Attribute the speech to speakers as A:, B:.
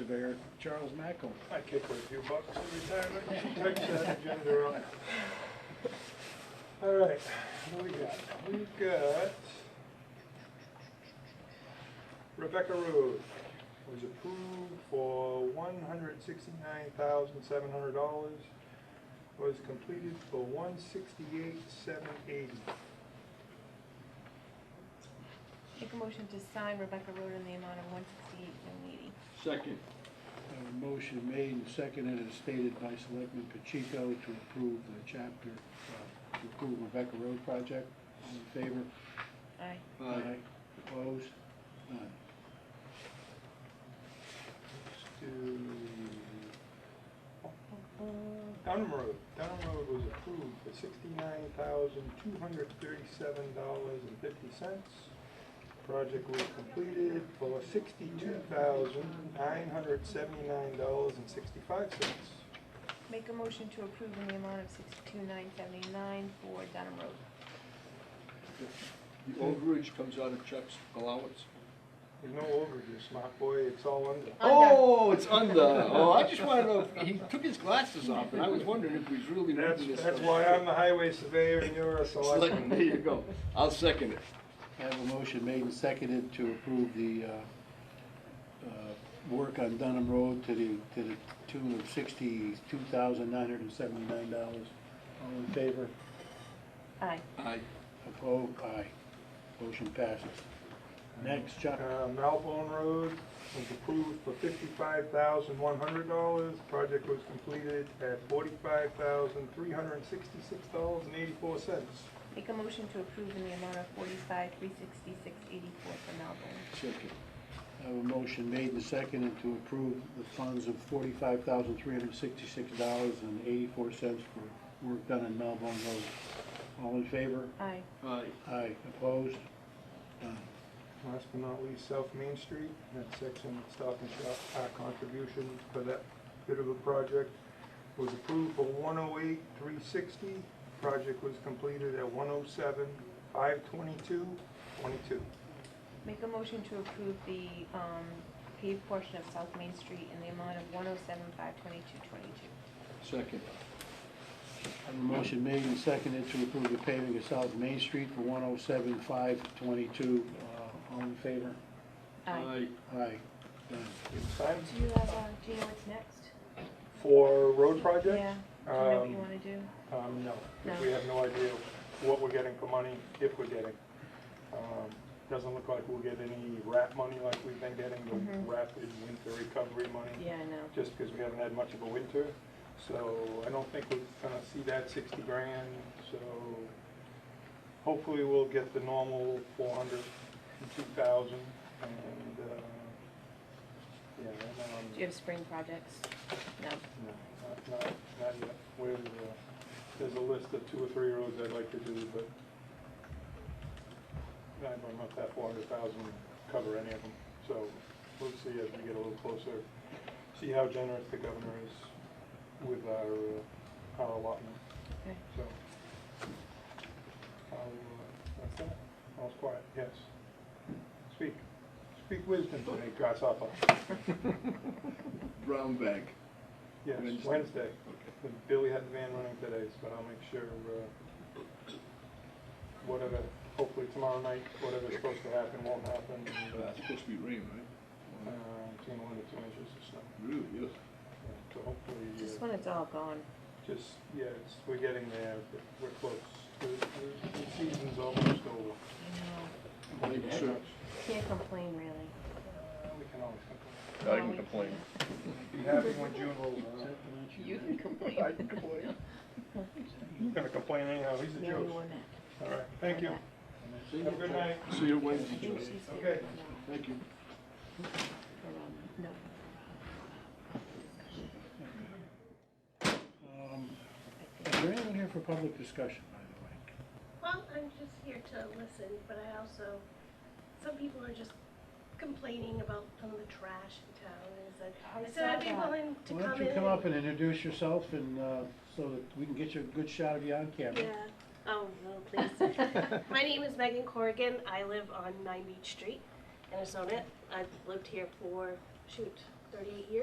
A: Bear, Charles Mackel.
B: I kick her a few bucks in retirement, she takes that agenda on. All right, what we got? We've got Rebecca Road was approved for one hundred sixty-nine thousand seven hundred dollars, was completed for one sixty-eight seven eighty.
C: Make a motion to sign Rebecca Road in the amount of one sixty-eight, one eighty.
D: Second.
A: A Uh, motion made and seconded as stated by Selectman Pacheco to approve the chapter, uh, to approve Rebecca Road project. All in favor?
C: Aye.
D: Aye.
A: Opposed? None.
B: Dunham Road, Dunham Road was approved for sixty-nine thousand two hundred thirty-seven dollars and fifty cents. Project was completed for sixty-two thousand nine hundred seventy-nine dollars and sixty-five cents.
C: Make a motion to approve in the amount of sixty-two, nine seventy-nine for Dunham Road.
D: The overage comes out of Chuck's allowance?
B: There's no overages, smart boy, it's all under.
C: Under.
D: Oh, it's under. Oh, I just wanted to, know if- he took his glasses off, and I was wondering if he's really
B: That's,
D: reading this.
B: that's
D: stuff.
B: why I'm the highway surveyor and you're a
D: Select- There
B: selectman.
D: you go. I'll second it.
A: I have a motion made and seconded to approve the, uh, uh, work on Dunham Road to the, to the tune of sixty-two thousand nine hundred and seventy-nine dollars. All in favor?
C: Aye.
D: Aye.
A: Opposed? Aye. Motion passes. Next, Chuck.
B: Uh, Malbone Road was approved for fifty-five thousand one hundred dollars. Project was completed at forty-five thousand three hundred and sixty-six dollars and eighty-four cents.
C: Make a motion to approve in the amount of forty-five, three sixty-six, eighty-four for Melbourne.
D: Second.
A: I have a motion made and seconded to approve the funds of forty-five thousand three hundred and sixty-six dollars and eighty-four cents for work done on Melbourne Road. All in favor?
C: Aye.
D: Aye.
A: Aye. Opposed? None.
B: Last but not least, South Main Street, that section of Stop and Shop, our contribution for that bit of a project was approved for one oh eight, three sixty. Project was completed at one oh seven, five twenty-two, twenty-two.
C: Make a motion to approve the, um, paved portion of South Main Street in the amount of one oh seven, five twenty-two, twenty-two.
D: Second.
A: I have a motion made and seconded to approve the paving of South Main Street for one oh seven five twenty-two. Uh, All in favor?
C: Aye.
A: Aye. Done.
B: You signed
C: Do you have, uh, do you know what's next?
B: for road project?
C: Yeah. Do you know what
B: Um,
C: you wanna do?
B: Um, no,
C: No.
B: we have no idea what we're getting for money, if we're getting. Um, Doesn't look like we'll get any RAP money like we've been getting, the
C: Mhm.
B: rapid winter recovery money,
C: Yeah, I know.
B: just because we haven't had much of a winter. So I don't think we're gonna see that sixty grand, so hopefully we'll get the normal four hundred and two thousand and, uh, yeah, and, um.
C: Do you have spring projects? No.
B: No, not- not, not yet. Where, uh, there's a list of two or three roads I'd like to do, but I don't know if that four hundred thousand cover any of them, so we'll see as we get a little closer. See how generous the governor is with our, uh, our allotment,
C: Okay.
B: so. I'll, uh, that's that. All's quiet, yes. Speak. Speak wisdom today, grasshopper.
A: Um,
D: Brown bag.
B: Yes,
D: Wednesday.
B: Wednesday.
D: Okay.
B: Billy had the van running today, but I'll make sure, uh, whatever, hopefully tomorrow night, whatever's supposed to happen won't happen. and, uh,
D: It's supposed to be rain,
B: uh,
D: right?
B: Between one to two inches of snow.
D: Really, yes.
B: Yeah, So hopefully,
C: Just
B: uh,
C: when it's all gone.
B: just, yeah, it's, we're getting there, but we're close. The, the- the season's almost over.
C: I know.
D: Thank you, sir.
C: Can't complain really.
B: Uh, We can always complain.
E: I
C: No,
E: can
C: we
E: complain.
B: Be happy when June rolls
A: Is
B: around.
A: that pronounced?
C: You can complain.
B: I can complain. He's gonna complain anyhow, he's a
C: Yeah,
B: joke.
C: you were mad.
B: All right, thank you.
D: See you.
B: Have a good night.
D: See you
C: I
D: Wednesday,
C: think
D: Joe.
C: she's here.
B: Okay.
C: No,
D: Thank you.
C: but, um, No.
A: Um, Is there anyone here for public discussion, by the way?
F: Well, I'm just here to listen, but I also, some people are just complaining about some of the trash in town. and so-
C: I
F: I said I'd be
C: saw that.
F: willing to come
A: Why
F: in.
A: don't you come up and introduce yourself and, uh, so that we can get you a good shot of you on camera?
F: Yeah. Oh, no, please. My name is Megan Corrigan. I live on Nine Beach Street in Arizona. I've lived here for, shoot, 38 years.